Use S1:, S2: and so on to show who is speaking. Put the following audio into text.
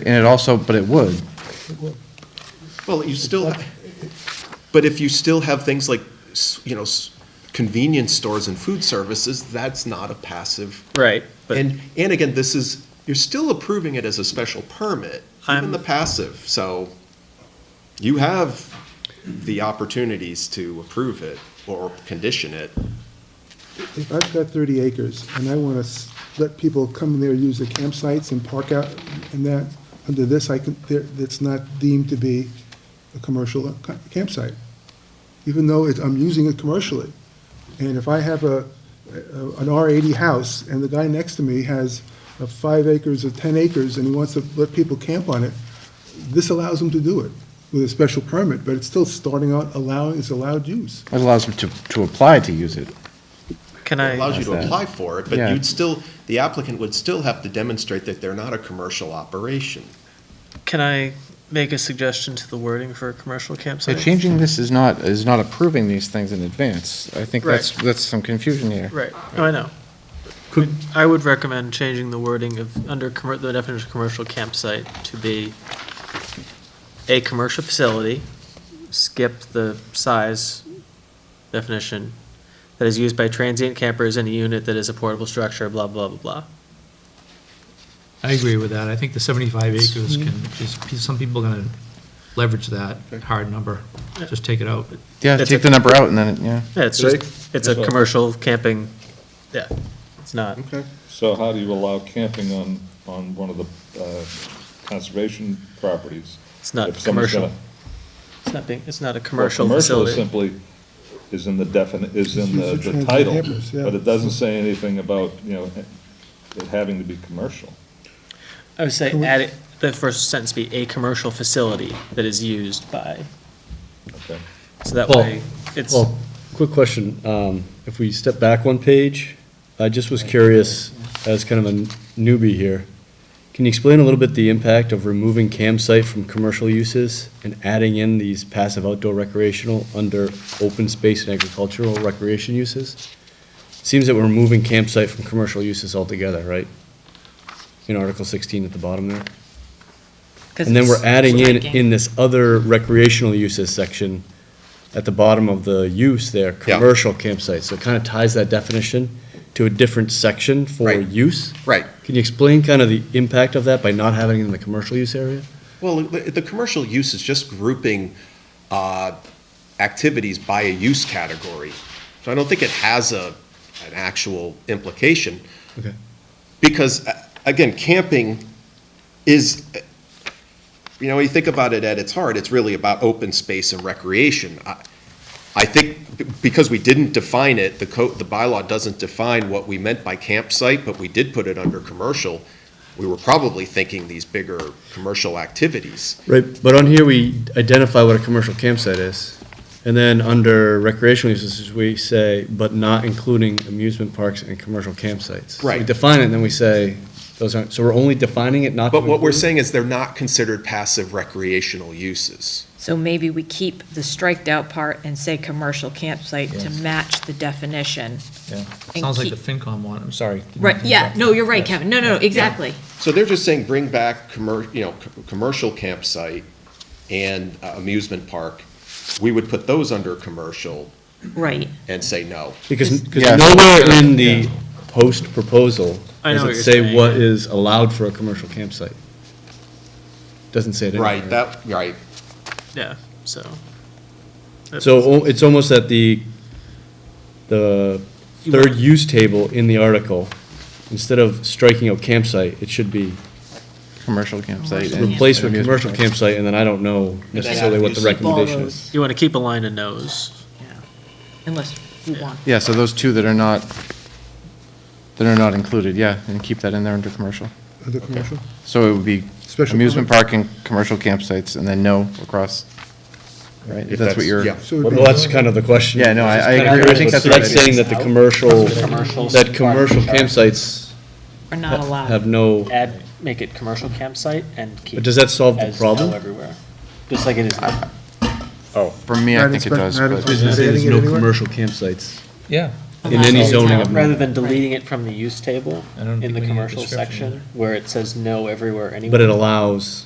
S1: And it also, but it would.
S2: Well, you still, but if you still have things like, s- you know, s- convenience stores and food services, that's not a passive.
S3: Right, but-
S2: And, and again, this is, you're still approving it as a special permit,
S3: I'm-
S2: even the passive, so you have the opportunities to approve it or condition it.
S4: If I've got 30 acres and I want to let people come there, use the campsites and park out and that, under this, I can, there- that's not deemed to be a commercial ca- campsite, even though it- I'm using it commercially. And if I have a, a- an R80 house and the guy next to me has uh, five acres or 10 acres and he wants to let people camp on it, this allows him to do it with a special permit, but it's still starting out allowing, it's allowed use.
S1: It allows them to, to apply to use it.
S3: Can
S2: It allows
S3: I,
S2: you to
S1: That's that.
S2: apply for it, but
S1: Yeah.
S2: you'd still, the applicant would still have to demonstrate that they're not a commercial operation.
S3: can I make a suggestion to the wording for a commercial
S1: So
S3: campsite?
S1: changing this is not, is not approving these things in advance. I think that's,
S3: Right.
S1: that's some confusion here.
S3: Right, oh, I know. I would recommend changing the wording of, under commer- the definition of commercial campsite to be a commercial facility, skip the size definition, that is used by transient campers in a unit that is a portable structure, blah, blah, blah, blah.
S5: I agree with that. I think the 75 acres can, is, some people are going to leverage that hard number, just take it out.
S1: Yeah,
S3: That's
S1: take
S3: a-
S1: the number out and then, it- yeah.
S3: Yeah, it's just, it's a commercial camping, yeah, it's not.
S2: Okay.
S6: So how do you allow camping on, on one of the uh, conservation properties?
S3: It's not
S6: If someone's
S3: commercial.
S6: gonna-
S3: It's not being, it's not a
S6: well,
S3: commercial
S6: is
S3: facility.
S6: simply is in the defini, is in the
S4: It's used for
S6: the title,
S4: transient campers, yeah.
S6: but it doesn't say anything about, you know, it having to be commercial.
S3: I would say add it, the first sentence be a commercial facility that is used by,
S6: Okay.
S3: so that
S7: Paul,
S3: way it's,
S7: Well, quick question. Um, If we step back one page, I just was curious, as kind of a newbie here, can you explain a little bit the impact of removing campsite from commercial uses and adding in these passive outdoor recreational under open space and agricultural recreation uses? Seems that we're removing campsite from commercial uses altogether, right? In Article 16 at the bottom there. And then we're adding in, in this other recreational uses section at the bottom of the use there,
S2: Yeah.
S7: commercial campsites. So it kind of ties that definition to a different section for
S2: Right.
S7: use.
S2: Right.
S7: Can you explain kind of the impact of that by not having it in the commercial use area?
S2: Well, the, the commercial use is just grouping uh, activities by a use category. So I don't think it has a, an actual implication,
S7: Okay.
S2: because, uh, again, camping is, uh, you know, when you think about it at its heart, it's really about open space and recreation. I- I think b- because we didn't define it, the code, the bylaw doesn't define what we meant by campsite, but we did put it under commercial. We were probably thinking these bigger commercial activities.
S7: Right, but on here, we identify what a commercial campsite is. And then under recreational uses, we say, but not including amusement parks and commercial campsites.
S2: Right.
S7: We define it and then we say, those aren't, so we're only defining it not to
S2: But what we're
S7: include?
S2: saying is they're not considered passive recreational uses.
S8: So maybe we keep the striked out part and say commercial campsite to match the definition.
S5: Yeah.
S8: And
S5: Sounds like the
S8: keep-
S5: FinCom one, I'm sorry. Didn't mean
S8: Right,
S5: to
S8: yeah,
S5: interrupt.
S8: no, you're right,
S5: Yes.
S8: Kevin. No, no, no, exactly.
S2: So they're just saying bring back commer, you know, c- commercial campsite and uh, amusement park. We would put those under commercial
S8: Right.
S2: and say no.
S7: Because,
S1: Yeah.
S7: because nowhere in the post proposal
S3: I know
S7: does
S3: what
S7: it
S3: you're
S7: say
S3: saying,
S7: what
S3: yeah.
S7: is allowed for a commercial campsite. Doesn't say it anywhere.
S2: Right, that, right.
S3: yeah, so. that
S7: So
S3: makes-
S7: o- it's almost at the, the third use table in the article, instead of striking out campsite, it should be
S1: Commercial campsite. and
S7: replaced with
S1: amusement
S7: commercial
S1: parks.
S7: campsite, and then I don't know necessarily what the
S2: Keep all
S7: recommendation is.
S3: You want to keep a line of no's.
S8: Yeah. Unless we want.
S1: Yeah, so those two that are not, that are not included, yeah, and keep that in there under commercial.
S4: Under commercial?
S1: So it would be
S4: Special
S1: amusement park and commercial campsites and then no across, right? If that's what you're.
S2: Yeah.
S4: So it would be-
S7: Well, that's kind of the question.
S1: Yeah, no, I- I
S7: Kinda
S1: agree. I
S7: curious,
S1: think
S7: but
S1: that's
S7: so
S1: a good
S7: That's
S1: idea.
S7: saying that the commercial, that commercial campsites
S8: Are not
S7: ha- have
S8: allowed.
S7: no.
S3: Add, make it commercial campsite and keep.
S7: But does that solve the
S3: as no
S7: problem?
S3: Everywhere, just like it is now.
S1: For me, I
S4: Not
S1: think it
S4: inspe-
S1: does,
S4: not
S1: but
S4: inspe- Is it
S7: There's
S4: adding it
S7: no
S4: anywhere?
S7: commercial campsites.
S5: Yeah,
S7: in any zoning of.
S3: Rather than deleting it from the use table
S5: I don't
S3: in
S5: think
S3: the
S5: we need a
S3: commercial
S5: description.
S3: section, where it says no everywhere anywhere.
S7: But it allows